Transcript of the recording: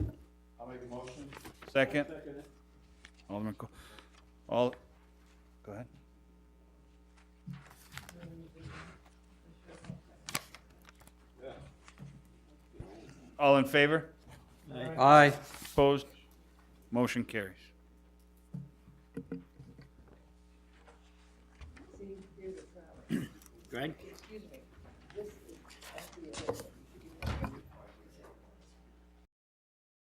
make a motion. Second? Alderman, Co- all, go ahead. All in favor? Aye. Opposed? Motion carries. Greg?